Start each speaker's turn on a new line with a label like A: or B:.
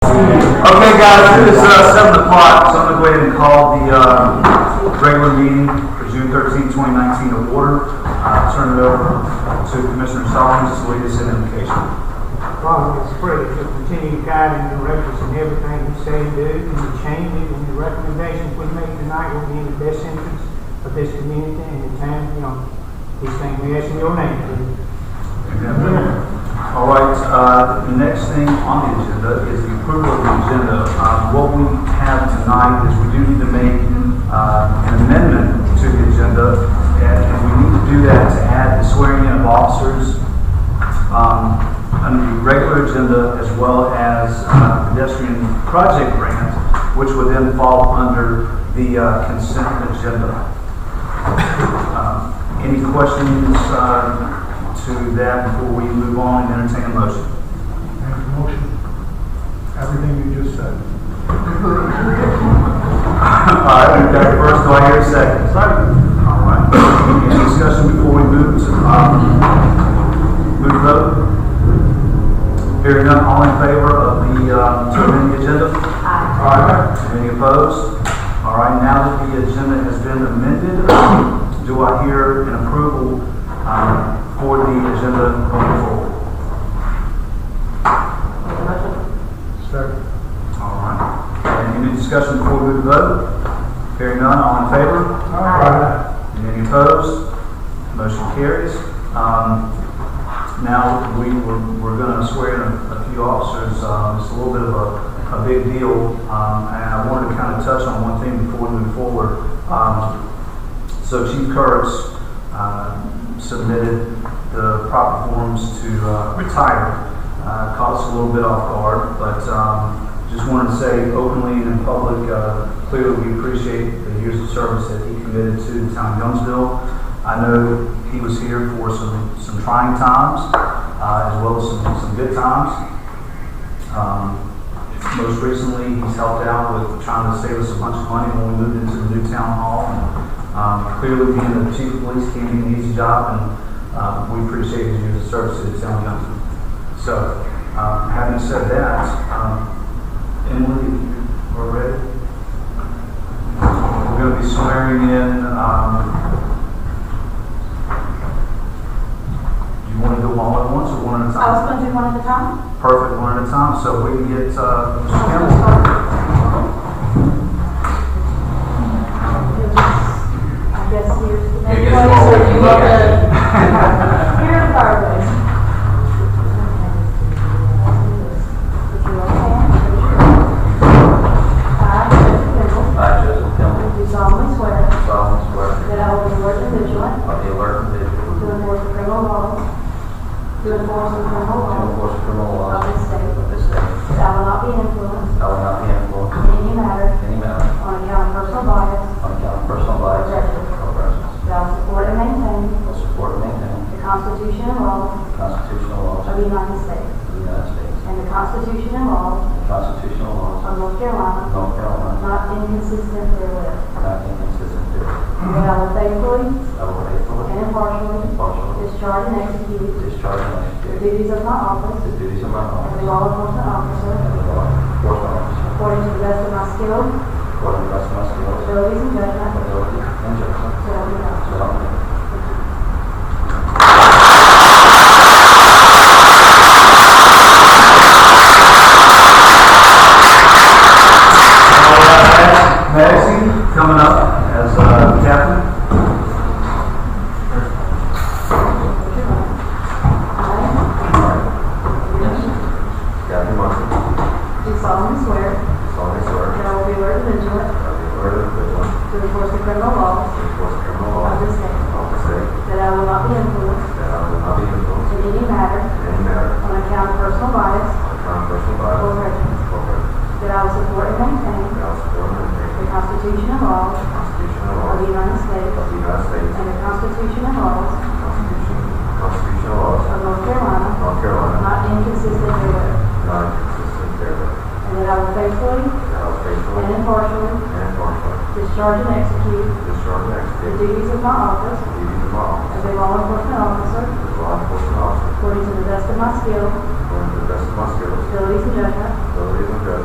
A: guys, it is uh, seven o'clock, so I'm gonna go ahead and call the, uh, regular meeting for June thirteenth, twenty nineteen to order. Uh, turn it over to Commissioner Solomon, just lead us in invocation.
B: Father, we pray that you'll continue to guide and direct us in everything you say and do, and the changes and the recommendations we make tonight will be in the best interest of this community and the town, you know, these things we ask in your name, please.
A: All right, uh, the next thing on the agenda is the approval of the agenda. Uh, What we have tonight is we do need to make uh, an amendment to the agenda, and and we need to do that to add the swearing in of officers um, under the regular agenda as well as uh, pedestrian project grant, which would then fall under the uh, consent agenda. Um, Any questions uh, to that before we move on and entertain a motion?
C: Make a motion. Everything you just said.
A: All right, we've got a first, do I hear a second? Second. All right. Any discussion before we move to, um, move to vote? Hearing none, all in favor of the, uh, to amend the agenda? All right, any opposed? All right, now that the agenda has been amended, um, do I hear an approval um, for the agenda going forward?
C: Second.
A: All right. Any discussion before we move to vote? Hearing none, all in favor? Any opposed? Motion carries. Um, Now, we, we're, we're gonna swear in a a few officers, um, it's a little bit of a, a big deal, um, and I wanted to kind of touch on one thing before we move forward. Um, So Chief Kurtz, um, submitted the proper forms to, uh, retire. Uh, caught us a little bit off guard, but, um, just wanted to say openly and in public, uh, clearly we appreciate the years of service that he committed to the town of Youngsville. I know he was here for some, some trying times, uh, as well as some, some good times. Um, most recently, he's helped out with trying to save us a bunch of money when we moved into the new town hall. Um, clearly being the chief of police can't be an easy job, and, um, we appreciate his years of service to the town of Youngsville. So, um, having said that, um, Emily, if you are ready. We're gonna be swearing in, um, you wanna do them all at once or one at a time?
D: I was gonna do one at a time.
A: Perfect, one at a time, so we can get, uh,
D: Oh,
A: Mr. Campbell.
D: I guess here's the
E: I
D: main place,
E: guess we'll
D: or
E: look
D: you want
E: at it.
D: to, here in the fireplace. Put your right hand, raise your hand. I, Joseph Campbell,
E: I, Joseph Campbell,
D: do solemnly swear
E: solemnly swear
D: that I will be alert and vigilant
E: I'll be alert and
D: to
E: vigilant
D: enforce the criminal laws, to enforce the criminal
E: to
D: laws
E: enforce criminal
D: of
E: laws
D: this state,
E: of this state.
D: that I will not be influenced
E: I will not be influenced
D: in any matter
E: in any manner
D: on account of personal bias,
E: on account of personal bias or prejudice.
D: that I will support and maintain
E: I will support and maintain
D: the Constitution and laws
E: the constitutional laws
D: Of
E: of
D: the United States.
E: the United States
D: And the Constitution and laws
E: and the constitutional laws
D: of North
E: of
D: Carolina,
E: North Carolina,
D: not inconsistent therewith.
E: not inconsistent therewith.
D: And that I will faithfully
E: I will faithfully
D: and impartially
E: and impartially
D: discharge and execute
E: discharge and
D: the
E: execute
D: duties of my
E: the
D: office
E: duties of my
D: as a
E: office
D: law enforcement
E: as
D: officer
E: a law enforcement officer
D: according to the best of my skill,
E: according to the best of my skills,
D: abilities, and judgment.
E: ability, and judgment.
D: So help me God.
E: So help me God.
A: Maxie coming up as uh, captain.
D: I
E: Kathy Martin,
D: do solemnly swear
E: solemnly swear
D: that I will be alert and vigilant
E: that I will be alert and vigilant
D: to enforce the criminal
E: to
D: laws
E: enforce
D: of
E: criminal laws
D: this state.
E: of the state,
D: That I will not be influenced
E: that I will not be influenced
D: in any matter
E: in any manner
D: on account of personal bias
E: on account of personal
D: or
E: bias
D: prejudice.
E: or prejudice,
D: That I will support and maintain
E: that I will support and
D: the
E: maintain
D: Constitution and
E: the
D: laws
E: Constitution and
D: of the
E: laws
D: United States
E: of the United States
D: and the Constitution and laws
E: and Constitution, constitutional laws
D: of North
E: of
D: Carolina,
E: North Carolina,
D: not inconsistent therewith,
E: not inconsistent therewith,
D: and that I will faithfully
E: that I will
D: and
E: faithfully
D: impartially
E: and impartially
D: discharge and execute
E: discharge and
D: the
E: execute
D: duties of my office
E: the duties of my office
D: as a law enforcement officer
E: as a law enforcement officer
D: according to the best of my skill,
E: according to the best of my skills,
D: abilities, and judgment,
E: abilities, and judgment,